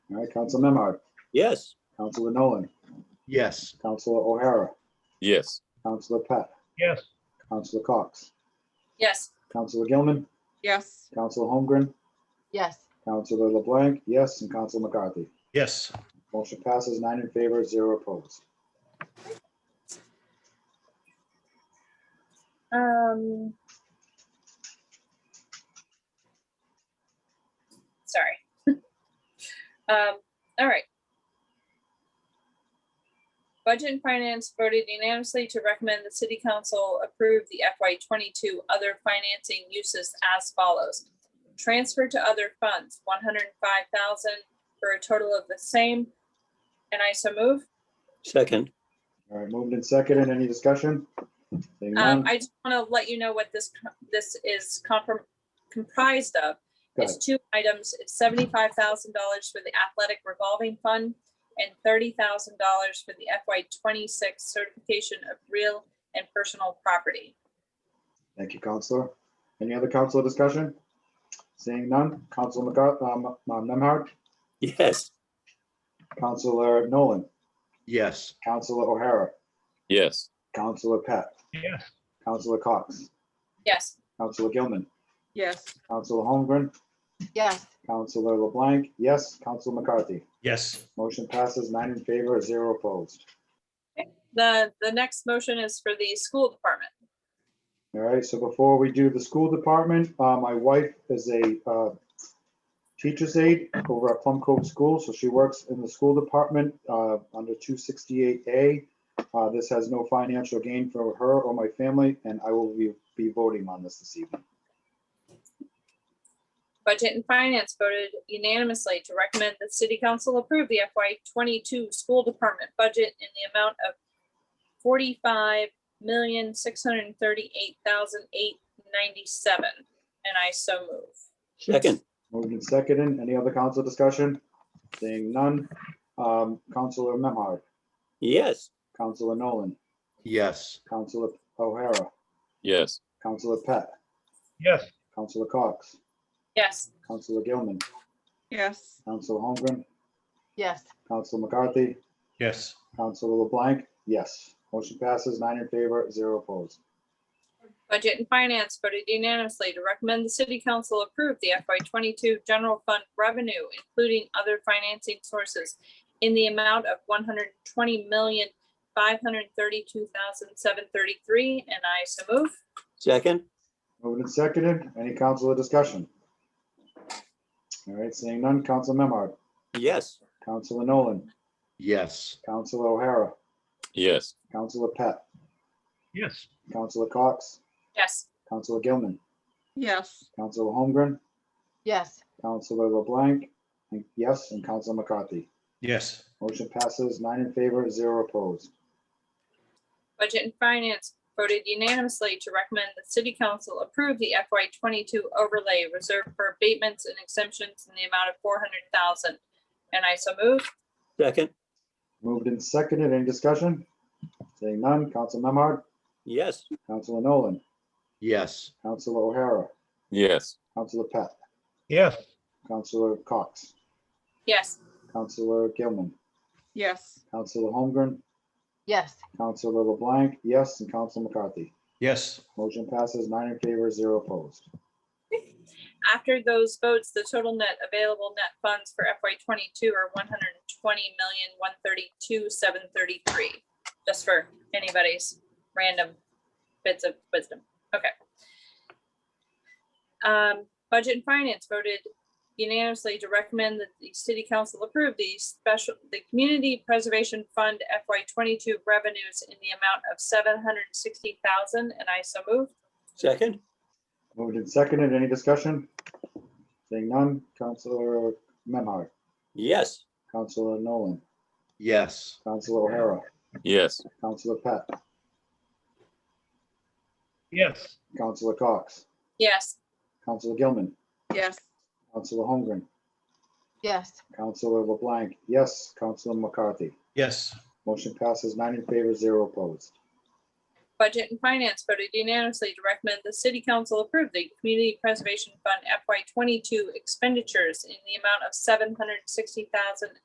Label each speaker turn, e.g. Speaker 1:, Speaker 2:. Speaker 1: All right, Council Memard,
Speaker 2: Yes.
Speaker 1: Councilor Nolan,
Speaker 3: Yes.
Speaker 1: Councilor O'Hara,
Speaker 4: Yes.
Speaker 1: Councilor Pat,
Speaker 3: Yes.
Speaker 1: Councilor Cox,
Speaker 5: Yes.
Speaker 1: Councilor Gilman,
Speaker 5: Yes.
Speaker 1: Councilor Holmgren,
Speaker 6: yes.
Speaker 1: Councilor LeBlanc, yes, and Council McCarthy.
Speaker 3: Yes.
Speaker 1: Motion passes nine in favor, zero opposed.
Speaker 5: Um. Sorry. Um, all right. Budget and Finance voted unanimously to recommend the City Council approve the FY twenty-two other financing uses as follows. Transfer to other funds, one hundred and five thousand for a total of the same. And I so move.
Speaker 2: Second.
Speaker 1: All right, moved and seconded. Any discussion? Seeing
Speaker 5: Um,
Speaker 1: none,
Speaker 5: I just want to let you know what this, co- this is comprom- comprised of.
Speaker 1: Go
Speaker 5: It's two items, it's seventy-five thousand dollars for the athletic revolving fund and thirty thousand dollars for the FY twenty-six certification of real and personal property.
Speaker 1: Thank you, Counselor. Any other council discussion? Seeing none, Council McCarthy, um, Memard,
Speaker 2: Yes.
Speaker 1: Councilor Nolan,
Speaker 3: Yes.
Speaker 1: Councilor O'Hara,
Speaker 4: Yes.
Speaker 1: Councilor Pat,
Speaker 3: Yes.
Speaker 1: Councilor Cox,
Speaker 5: Yes,
Speaker 1: Councilor Gilman,
Speaker 6: Yes.
Speaker 1: Councilor Holmgren,
Speaker 6: Yes.
Speaker 1: Councilor LeBlanc, yes, Council McCarthy.
Speaker 3: Yes.
Speaker 1: Motion passes nine in favor, zero opposed.
Speaker 5: the, the next motion is for the school department.
Speaker 1: All right, so before we do the school department, uh, my wife is a, uh, teacher's aide over at Plum Cove School, so she works in the school department, uh, under two sixty-eight A. Uh, this has no financial gain for her or my family, and I will be, be voting on this this evening.
Speaker 5: Budget and Finance voted unanimously to recommend the city council approve the FY twenty-two school department budget in the amount of forty-five million, six hundred and thirty-eight thousand, eight ninety-seven, and I so move.
Speaker 2: Second.
Speaker 1: Moved and seconded. Any other council discussion? Seeing none. Um, Counselor Memhard,
Speaker 2: Yes.
Speaker 1: Counselor Nolan,
Speaker 3: Yes.
Speaker 1: Counselor O'Hara,
Speaker 4: Yes.
Speaker 1: Counselor Pat,
Speaker 3: Yes.
Speaker 1: Counselor Cox,
Speaker 5: Yes,
Speaker 1: Counselor Gilman,
Speaker 6: Yes.
Speaker 1: Counselor Holmgren,
Speaker 6: Yes.
Speaker 1: Counselor McCarthy,
Speaker 3: Yes.
Speaker 1: Counselor LeBlanc, yes. Motion passes nine in favor, zero opposed.
Speaker 5: Budget and Finance voted unanimously to recommend the city council approve the FY twenty-two general fund revenue, including other financing sources in the amount of one hundred twenty million, five hundred thirty-two thousand, seven thirty-three, and I so move.
Speaker 2: Second.
Speaker 1: Moved and seconded. Any councilor discussion? All right, seeing none. Counsel Memard,
Speaker 2: Yes.
Speaker 1: Counselor Nolan,
Speaker 3: Yes.
Speaker 1: Counselor O'Hara,
Speaker 4: Yes.
Speaker 1: Counselor Pat,
Speaker 3: Yes.
Speaker 1: Counselor Cox,
Speaker 5: Yes,
Speaker 1: Counselor Gilman,
Speaker 6: Yes.
Speaker 1: Counselor Holmgren,
Speaker 6: Yes.
Speaker 1: Counselor LeBlanc, and yes, and Counselor McCarthy.
Speaker 3: Yes.
Speaker 1: Motion passes nine in favor, zero opposed.
Speaker 5: Budget and Finance voted unanimously to recommend the city council approve the FY twenty-two overlay reserved for abatements and exemptions in the amount of four hundred thousand, and I so move.
Speaker 2: Second.
Speaker 1: Moved and seconded. Any discussion? Seeing none. Counsel Memard,
Speaker 2: Yes.
Speaker 1: Counselor Nolan,
Speaker 3: Yes.
Speaker 1: Counselor O'Hara,
Speaker 4: Yes.
Speaker 1: Counselor Pat,
Speaker 3: Yes.
Speaker 1: Counselor Cox,
Speaker 5: Yes,
Speaker 1: Counselor Gilman,
Speaker 6: Yes.
Speaker 1: Counselor Holmgren,
Speaker 6: Yes.
Speaker 1: Counselor LeBlanc, yes, and Counselor McCarthy.
Speaker 3: Yes.
Speaker 1: Motion passes nine in favor, zero opposed.
Speaker 5: After those votes, the total net available net funds for FY twenty-two are one hundred and twenty million, one thirty-two, seven thirty-three. Just for anybody's random bits of wisdom. Okay. Um, Budget and Finance voted unanimously to recommend that the city council approve the special, the Community Preservation Fund FY twenty-two revenues in the amount of seven hundred and sixty thousand, and I so move.
Speaker 2: Second.
Speaker 1: Moved and seconded. Any discussion? Seeing none. Counselor Memard,
Speaker 2: Yes.
Speaker 1: Counselor Nolan,
Speaker 3: Yes.
Speaker 1: Counselor O'Hara,
Speaker 4: Yes.
Speaker 1: Counselor Pat,
Speaker 3: Yes.
Speaker 1: Counselor Cox,
Speaker 5: Yes,
Speaker 1: Counselor Gilman,
Speaker 6: Yes.
Speaker 1: Counselor Holmgren,
Speaker 6: Yes.
Speaker 1: Counselor LeBlanc, yes, Counselor McCarthy.
Speaker 3: Yes.
Speaker 1: Motion passes nine in favor, zero opposed.
Speaker 5: Budget and Finance voted unanimously to recommend the City Council approve the Community Preservation Fund FY twenty-two expenditures in the amount of seven hundred sixty thousand